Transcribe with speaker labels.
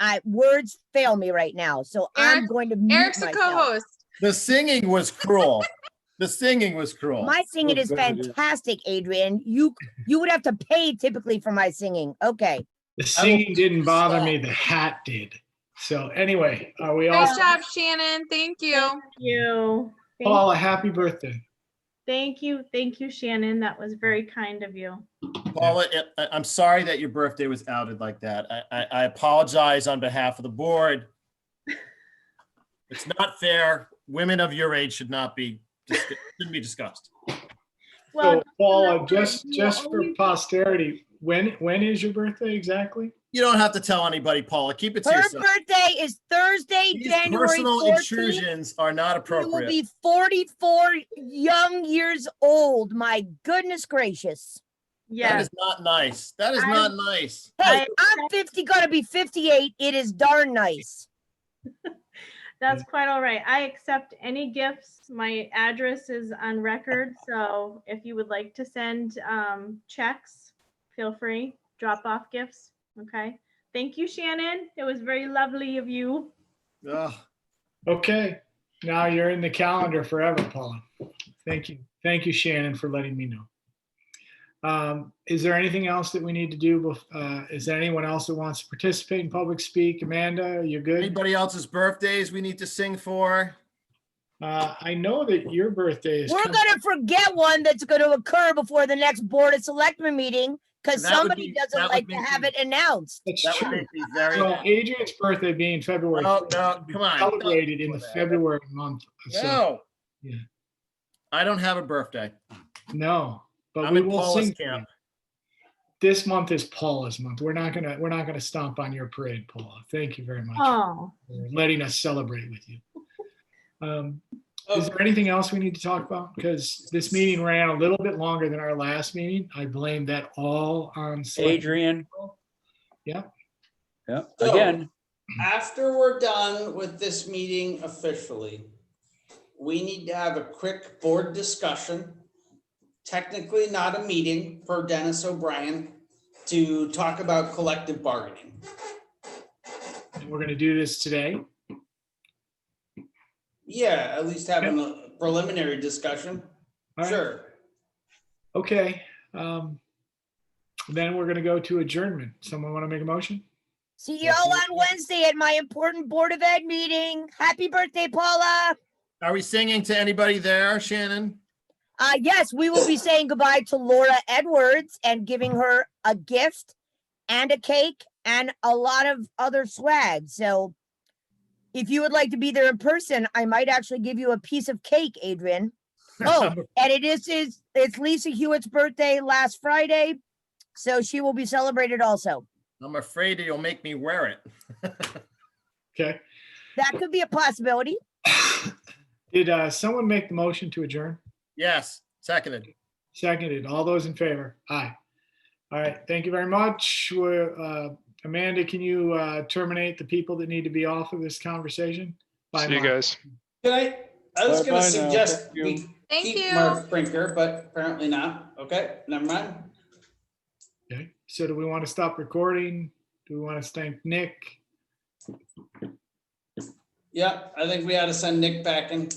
Speaker 1: I, words fail me right now, so I'm
Speaker 2: Eric-
Speaker 1: going to mute
Speaker 2: Eric's a
Speaker 1: myself.
Speaker 2: co-host.
Speaker 3: The singing was cruel. The singing was cruel.
Speaker 1: My singing is fantastic, Adrian. You, you would have to pay typically for my singing. Okay.
Speaker 3: I
Speaker 4: The
Speaker 3: will-
Speaker 4: singing didn't bother me, the hat did. So anyway, are we all,
Speaker 2: Nice job, Shannon. Thank you.
Speaker 5: you. Thank-
Speaker 4: Paula, happy birthday.
Speaker 5: Thank you, thank you, Shannon. That was very kind of you.
Speaker 3: Paula, I, I'm sorry that your birthday was outed like that. I, I, I apologize on behalf of the board. It's not fair. Women of your age should not be, dis- shouldn't be discussed.
Speaker 5: Well,
Speaker 4: So Paula,
Speaker 5: not
Speaker 4: uh, just,
Speaker 5: really.
Speaker 4: just for
Speaker 5: Only-
Speaker 4: posterity, when, when is your birthday exactly?
Speaker 3: You don't have to tell anybody, Paula. Keep it to
Speaker 1: Her
Speaker 3: yourself.
Speaker 1: birthday is Thursday,
Speaker 3: These
Speaker 1: January
Speaker 3: personal
Speaker 1: fourteenth.
Speaker 3: intrusions are not
Speaker 1: You will
Speaker 3: appropriate.
Speaker 1: be forty-four young years old. My goodness gracious.
Speaker 3: That
Speaker 5: Yes,
Speaker 3: is not nice. That is
Speaker 5: I-
Speaker 3: not nice.
Speaker 1: Hey,
Speaker 5: I-
Speaker 1: I'm fifty, gonna be fifty-eight. It is darn nice.
Speaker 5: that's quite all right. I accept any gifts. My address is on record, so if you would like to send um, checks, feel free, drop off gifts, okay? Thank you, Shannon. It was very lovely of you.
Speaker 3: Ugh.
Speaker 4: Okay, now you're in the calendar forever, Paula. Thank you. Thank you, Shannon, for letting me know. Um, Is there anything else that we need to do? bef- uh, Is there anyone else that wants to participate in public speak? Amanda, you good?
Speaker 3: Anybody else's birthdays we need to sing for?
Speaker 4: Uh, I know that your birthday is.
Speaker 1: We're
Speaker 4: coming.
Speaker 1: gonna forget one that's gonna occur before the next Board of Selectmen meeting, because
Speaker 3: That would
Speaker 1: somebody
Speaker 3: be- that
Speaker 1: doesn't
Speaker 3: would
Speaker 1: like to
Speaker 3: make
Speaker 1: have
Speaker 3: me-
Speaker 1: it announced.
Speaker 4: That's
Speaker 3: That would
Speaker 4: true.
Speaker 3: make me very.
Speaker 4: So Adrian's birthday being February.
Speaker 3: Oh, No,
Speaker 4: 4th,
Speaker 3: no, come on.
Speaker 4: Celebrated in the
Speaker 3: Don't do that.
Speaker 4: February month. so-
Speaker 3: No.
Speaker 4: Yeah.
Speaker 3: I don't have a birthday.
Speaker 4: No, but
Speaker 3: I'm
Speaker 4: we
Speaker 3: in
Speaker 4: will
Speaker 3: Paula's
Speaker 4: sing. for
Speaker 3: camp.
Speaker 4: you. This month is Paula's month. We're not gonna, we're not gonna stomp on your parade, Paula. Thank you very much.
Speaker 5: Oh,
Speaker 4: for letting us celebrate with you. Um,
Speaker 3: Oh.
Speaker 4: Is there anything else we need to talk about? Because this meeting ran a little bit longer than our last meeting. I blame that all on. select-
Speaker 6: Adrian.
Speaker 4: Yeah.
Speaker 6: Yeah,
Speaker 7: So-
Speaker 6: again,
Speaker 7: After we're done with this meeting officially, we need to have a quick board discussion. Technically not a meeting for Dennis O'Brien to talk about collective bargaining.
Speaker 4: And We're gonna do this today.
Speaker 7: Yeah, at least having a preliminary discussion.
Speaker 4: All right.
Speaker 7: Sure.
Speaker 4: Okay. um, Then we're gonna go to adjournment. Someone want to make a motion?
Speaker 1: See you all on Wednesday at my important Board of Ed meeting. Happy birthday, Paula.
Speaker 3: Are we singing to anybody there, Shannon?
Speaker 1: Uh, yes, we will be saying goodbye to Laura Edwards and giving her a gift and a cake and a lot of other swag. So if you would like to be there in person, I might actually give you a piece of cake, Adrian. Oh, and it is is it's Lisa Hewitt's birthday last Friday. So she will be celebrated also.
Speaker 3: I'm afraid you'll make me wear it.
Speaker 4: Okay.
Speaker 1: That could be a possibility.
Speaker 4: Did uh, someone make the motion to adjourn?
Speaker 3: Yes, seconded.
Speaker 4: Seconded. All those in favor? Aye. All right. Thank you very much. We're, uh, Amanda, can you uh, terminate the people that need to be off of this conversation? Bye,
Speaker 8: See you
Speaker 4: Mark.
Speaker 8: guys.
Speaker 7: Can I, I was
Speaker 6: Bye-bye
Speaker 7: gonna
Speaker 6: now.
Speaker 7: suggest
Speaker 6: Thank you.
Speaker 7: we
Speaker 2: Thank
Speaker 7: keep
Speaker 2: you.
Speaker 7: Mark Brinker, but apparently not. Okay, never mind.
Speaker 4: Okay. So do we want to stop recording? Do we want to thank Nick?
Speaker 7: Yeah, I think we ought to send Nick back in.